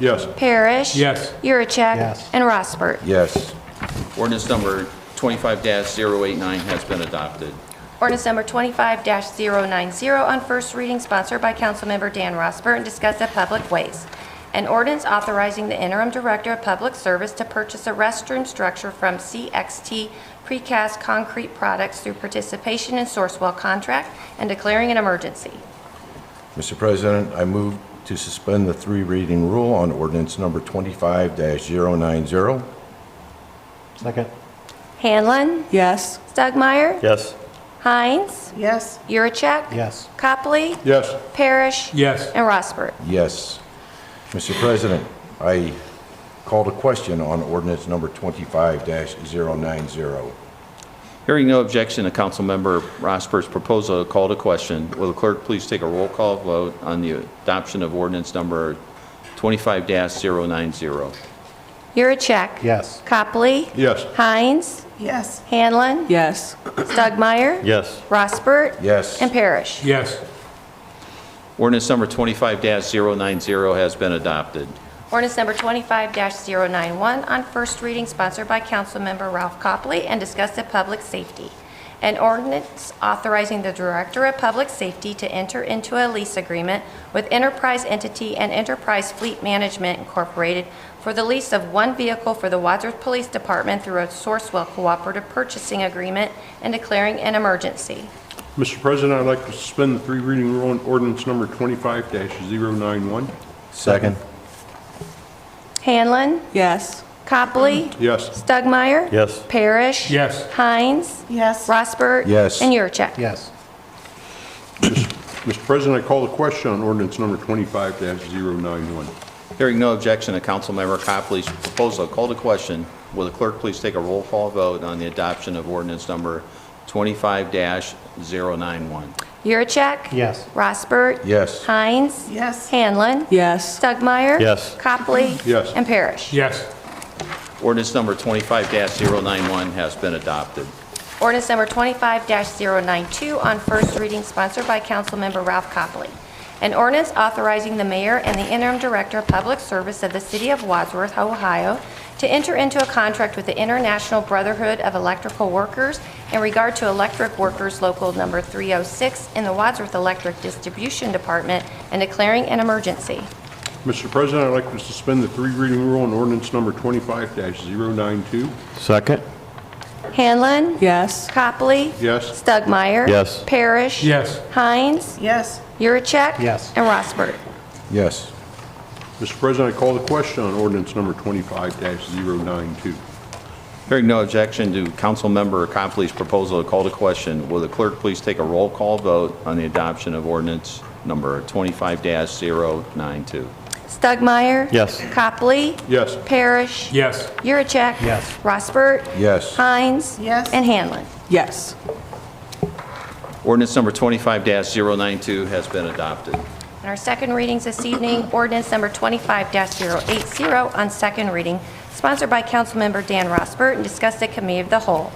Yes. Parrish. Yes. Yuracek. Yes. And Rossbert. Yes. Ordinance number 25-089 has been adopted. Ordinance number 25-090 on first reading sponsored by Councilmember Dan Rosbert and discussed at Public Ways. An ordinance authorizing the interim director of public service to purchase a restroom structure from CXT Precast Concrete Products through participation in Sourcewell contract and declaring an emergency. Mr. President, I move to suspend the three reading rule on ordinance number 25-090. Second. Hanlon? yes, Stugmeyer? Yes. Heinz? yes, Yuracek? Yes. Copley? Yes. Parrish? yes, And Rosbert. Yes. Mr. President, I called a question on ordinance number 25-090. Hearing no objection to Councilmember Rosbert's proposal, call to question. Will the clerk please take a roll call vote on the adoption of ordinance number 25-090? Yuracek? Yes. Copley? Yes. Heinz? yes, Hanlon? yes, Stugmeyer? Yes. Rossbert? Yes. And Parrish? yes, Ordinance number 25-090 has been adopted. Ordinance number 25-091 on first reading sponsored by Councilmember Ralph Copley and discussed at Public Safety. An ordinance authorizing the Director of Public Safety to enter into a lease agreement with Enterprise Entity and Enterprise Fleet Management Incorporated for the lease of one vehicle for the Wadsworth Police Department through a Sourcewell Cooperative Purchasing Agreement and declaring an emergency. Mr. President, I'd like to suspend the three reading rule on ordinance number 25-091. Second. Hanlon? yes, Copley? Yes. Stugmeyer? Yes. Parrish? Yes. Heinz? yes, Rossbert? Yes. And Yurcheck? Yes. Mr. President, I call the question on ordinance number 25-091. Hearing no objection to Councilmember Copley's proposal, call to question. Will the clerk please take a roll call vote on the adoption of ordinance number 25-091? Yurcheck? Yes. Rossbert? Yes. Heinz? yes. Hanlon? yes, Stugmeyer? Yes. Copley? Yes. And Parrish? yes, Ordinance number 25-091 has been adopted. Ordinance number 25-092 on first reading sponsored by Councilmember Ralph Copley. An ordinance authorizing the mayor and the interim director of public service of the city of Wadsworth, Ohio, to enter into a contract with the International Brotherhood of Electrical Workers in regard to electric workers local number 306 in the Wadsworth Electric Distribution Department and declaring an emergency. Mr. President, I'd like to suspend the three reading rule on ordinance number 25-092. Second. Hanlon? yes, Copley? Yes. Stugmeyer? Yes. Parrish? yes, Heinz? Yes, Yurcheck? Yes. And Rossbert. Yes. Mr. President, I call the question on ordinance number 25-092. Hearing no objection to Councilmember Copley's proposal to call to question, will the clerk please take a roll call vote on the adoption of ordinance number 25-092? Stugmeyer? Yes. Copley? Yes. Parrish? yes, Yurcheck? Yes. Rossbert? Yes. Heinz? Yes. And Hanlon. yes, Ordinance number 25-092 has been adopted. And our second readings this evening, ordinance number 25-080 on second reading, sponsored by Councilmember Dan Rosbert and discussed at Committee of the Whole.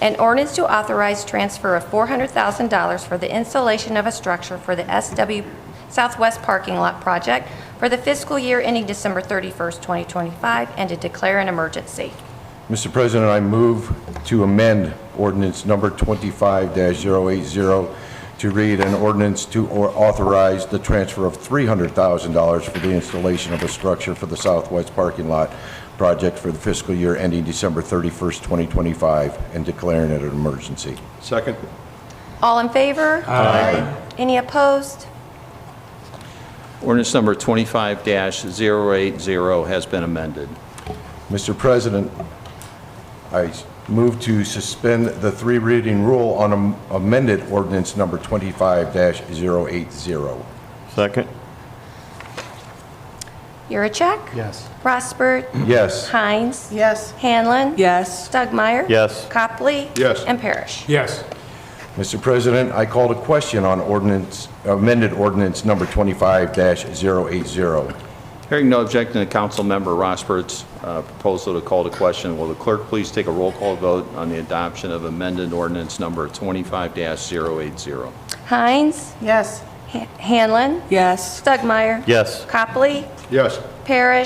An ordinance to authorize transfer of $400,000 for the installation of a structure for the SW Southwest Parking Lot Project for the fiscal year ending December 31st, 2025, and to declare an emergency. Mr. President, I move to amend ordinance number 25-080 to read an ordinance to au- authorize the transfer of $300,000 for the installation of a structure for the Southwest Parking Lot project for the fiscal year ending December 31st, 2025, and declaring it an emergency. Second. All in favor? Aye. Any opposed? Ordinance number 25-080 has been amended. Mr. President, I move to suspend the three reading rule on am- amended ordinance number 25-080. Second. Yurcheck? Yes. Rosbert? Yes. Heinz? yes, Hanlon? yes, Stugmeyer? Yes. Copley? Yes. And Parrish. yes, Mr. President, I called a question on ordinance, amended ordinance number 25-080. Hearing no objection to Councilmember Rosbert's uh, proposal to call to question, will the clerk please take a roll call vote on the adoption of amended ordinance number 25-080? Heinz, yes. Ha- Hanlon, yes. Stugmeyer. Yes. Copley, Yes. Parrish.